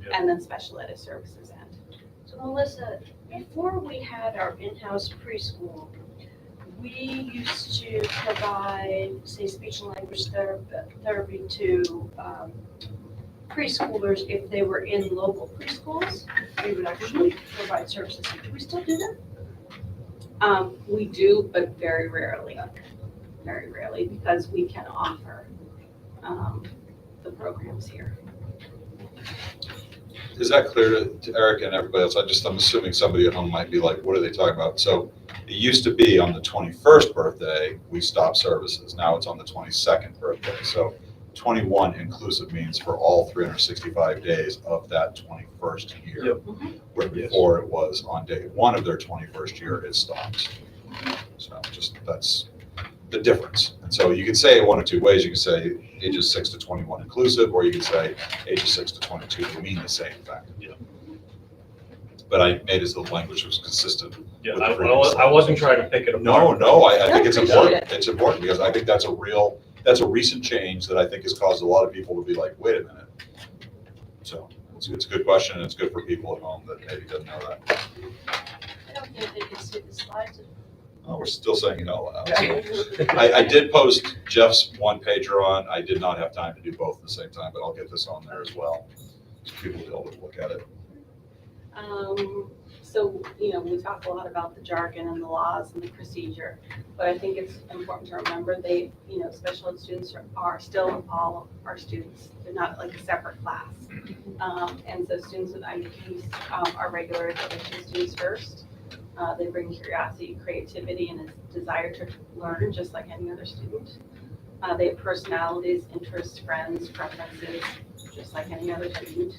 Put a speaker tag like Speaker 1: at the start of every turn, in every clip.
Speaker 1: Yeah.
Speaker 2: and then special ed is services end.
Speaker 3: So Melissa, before we had our in-house preschool, we used to provide, say, speech and language ther- therapy to um, preschoolers if they were in local preschools. We would actually provide services. Do we still do that?
Speaker 2: Um, we do, but very rarely, very rarely, because we can offer, um, the programs here.
Speaker 4: Is that clear to- to Eric and everybody else? I just, I'm assuming somebody at home might be like, what are they talking about? So it used to be on the 21st birthday, we stopped services. Now it's on the 22nd birthday. So 21 inclusive means for all 365 days of that 21st year. Where before it was on day one of their 21st year, it stops. So just, that's the difference. And so you can say it one of two ways. You can say ages six to 21 inclusive, or you can say ages six to 22, they mean the same thing.
Speaker 1: Yeah.
Speaker 4: But I made it so the language was consistent.
Speaker 1: Yeah,
Speaker 4: With
Speaker 1: I,
Speaker 4: the
Speaker 1: I
Speaker 4: previous
Speaker 1: wa- I wasn't trying to pick it
Speaker 4: No,
Speaker 1: apart.
Speaker 4: no, I, I think it's
Speaker 2: I appreciate
Speaker 4: important, it's important, because I think that's a real, that's a recent change that I think has caused a lot of people to be like, wait a minute. So, it's, it's a good question, and it's good for people at home that maybe doesn't know that.
Speaker 3: I don't think they can see the slides.
Speaker 4: Uh, we're still saying it out loud. so. I, I did post Jeff's one pager on, I did not have time to do both at the same time, but I'll get this on there as well. so People will be able to look at it.
Speaker 2: Um, so, you know, we talk a lot about the jargon and the laws and the procedure, but I think it's important to remember they, you know, special ed students are- are still all our students. They're not like a separate class. Um, and so students with IEPs, um, are regular education students first. Uh, they bring curiosity, creativity, and a desire to learn, just like any other student. Uh, they have personalities, interests, friends, preferences, just like any other student.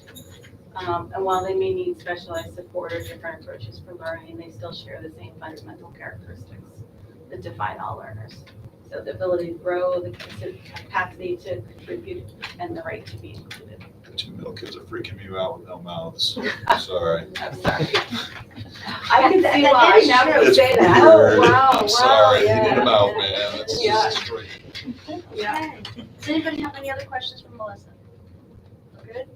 Speaker 2: Um, and while they may need specialized support or different approaches for learning, they still share the same fundamental characteristics that define all learners. So the ability to grow, the capacity to contribute, and the right to be included.
Speaker 4: The two middle kids are freaking you out with no mouths. Sorry.
Speaker 2: I'm sorry. I can see
Speaker 3: That-
Speaker 2: why,
Speaker 3: that
Speaker 2: now that you
Speaker 4: It's
Speaker 2: say that.
Speaker 3: Oh,
Speaker 4: weird.
Speaker 3: wow, wow,
Speaker 4: I'm sorry. You need
Speaker 2: yeah.
Speaker 4: them out, man. That's
Speaker 2: Yeah.
Speaker 4: just crazy.
Speaker 2: Yeah.
Speaker 3: Okay. Does anybody have any other questions for Melissa? We're Good?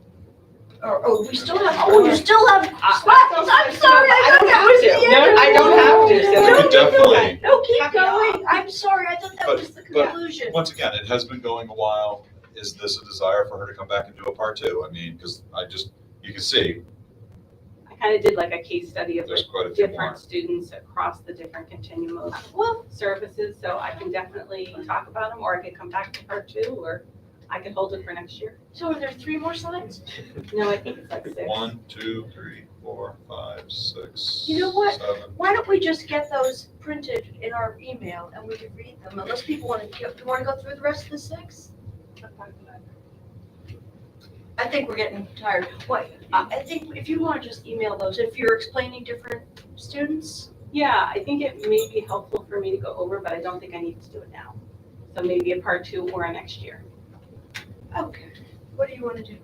Speaker 3: Or, oh, we still have, oh, you still have slides, I'm sorry.
Speaker 2: I don't
Speaker 3: thought that
Speaker 2: have
Speaker 3: was
Speaker 2: to.
Speaker 3: the end
Speaker 2: No,
Speaker 3: of
Speaker 2: I
Speaker 3: it.
Speaker 2: don't have to, so-
Speaker 3: You don't
Speaker 4: We
Speaker 3: have to.
Speaker 4: Definitely,
Speaker 3: No, keep
Speaker 2: Happy hour.
Speaker 3: going, I'm sorry, I thought that
Speaker 4: But-
Speaker 3: was the
Speaker 4: but-
Speaker 3: conclusion.
Speaker 4: once again, it has been going a while. Is this a desire for her to come back and do a part two? I mean, because I just, you can see,
Speaker 2: I kind of did like a case study of
Speaker 4: there's quite a few more.
Speaker 2: different students across the different continuum of
Speaker 3: Well,
Speaker 2: services, so I can definitely talk about them, or I could come back to part two, or I could hold it for next year.
Speaker 3: so are there three more slides?
Speaker 2: No, I think it's like six.
Speaker 4: One, two, three, four, five, six.
Speaker 3: You know what?
Speaker 4: seven.
Speaker 3: Why don't we just get those printed in our email and we can read them, unless people wanna, do you wanna go through the rest of the six? I think we're getting tired, what, I, I think if you wanna just email those, if you're explaining different students,
Speaker 2: Yeah, I think it may be helpful for me to go over, but I don't think I need to do it now. So maybe a part two or a next year.
Speaker 3: okay, what do you wanna do?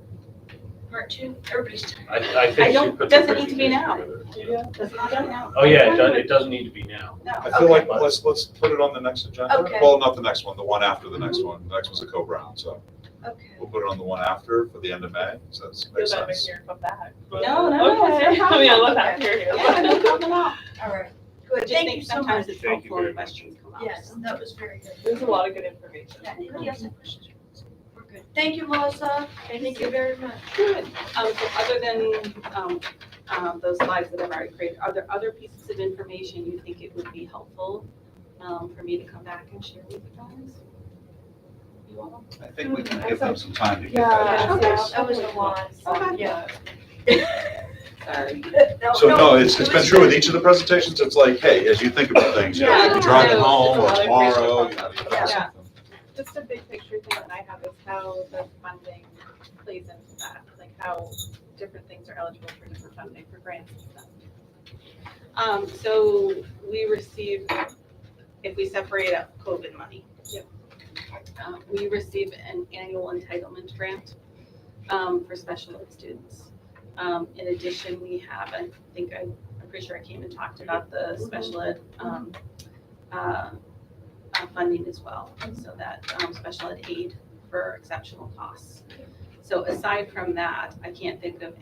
Speaker 3: Part two, everybody's tired.
Speaker 1: I, I
Speaker 2: I
Speaker 1: think she
Speaker 2: don't-
Speaker 1: put the
Speaker 2: doesn't need to be
Speaker 1: presentation
Speaker 2: now.
Speaker 1: together.
Speaker 2: That's not done now.
Speaker 1: Oh, yeah, it doesn't, it doesn't need to be now.
Speaker 2: No,
Speaker 4: I feel like,
Speaker 1: Okay.
Speaker 4: let's, let's put it on the next agenda.
Speaker 3: Okay.
Speaker 4: Well, not the next one, the one after the next one. The next one's a co-brown, so
Speaker 3: Okay.
Speaker 4: we'll put it on the one after for the end of May. So that's,
Speaker 5: Feel
Speaker 4: makes
Speaker 5: better
Speaker 4: sense.
Speaker 5: here about that.
Speaker 2: No, no,
Speaker 5: Okay.
Speaker 2: it's no
Speaker 5: I mean, I
Speaker 2: problem.
Speaker 5: love that you're here.
Speaker 2: yeah, no problem at all.
Speaker 3: All right,
Speaker 2: I
Speaker 3: good,
Speaker 2: just
Speaker 3: thank
Speaker 2: think
Speaker 3: you so much.
Speaker 2: sometimes it's
Speaker 1: Thank you
Speaker 2: helpful when
Speaker 1: very much.
Speaker 2: questions come up.
Speaker 3: Yes, that was very good.
Speaker 5: There's a lot of good information.
Speaker 3: Yeah, Anybody else have questions? We're good. Thank you, Melissa. Thank you very much.
Speaker 2: Good. Um, so other than, um, um, those slides that I've already created, are there other pieces of information you think it would be helpful, um, for me to come back and share with you guys? You all?
Speaker 4: I think we can give them some time to get
Speaker 5: Yeah.
Speaker 4: that.
Speaker 2: Okay.
Speaker 3: That was a lot.
Speaker 2: Okay.
Speaker 3: Yeah.
Speaker 2: Sorry.
Speaker 4: So no, it's, it's been true with each of the presentations, it's like, hey, as you think about things, you know, you
Speaker 2: Yeah.
Speaker 4: can drive it
Speaker 2: Yeah.
Speaker 4: home or
Speaker 5: Yeah.
Speaker 4: tomorrow, you know, you
Speaker 2: Yeah.
Speaker 4: think something.
Speaker 5: Just a big picture thing that I have is how the funding plays into that, like how different things are eligible for different funding for grants and stuff.
Speaker 2: Um, so we receive, if we separate out COVID money.
Speaker 5: Yep.
Speaker 2: Uh, we receive an annual entitlement grant, um, for special ed students. Um, in addition, we have, I think I, I'm pretty sure I came and talked about the special ed, um, uh, uh, funding as well. So that, um, special ed aid for exceptional costs. So aside from that, I can't think of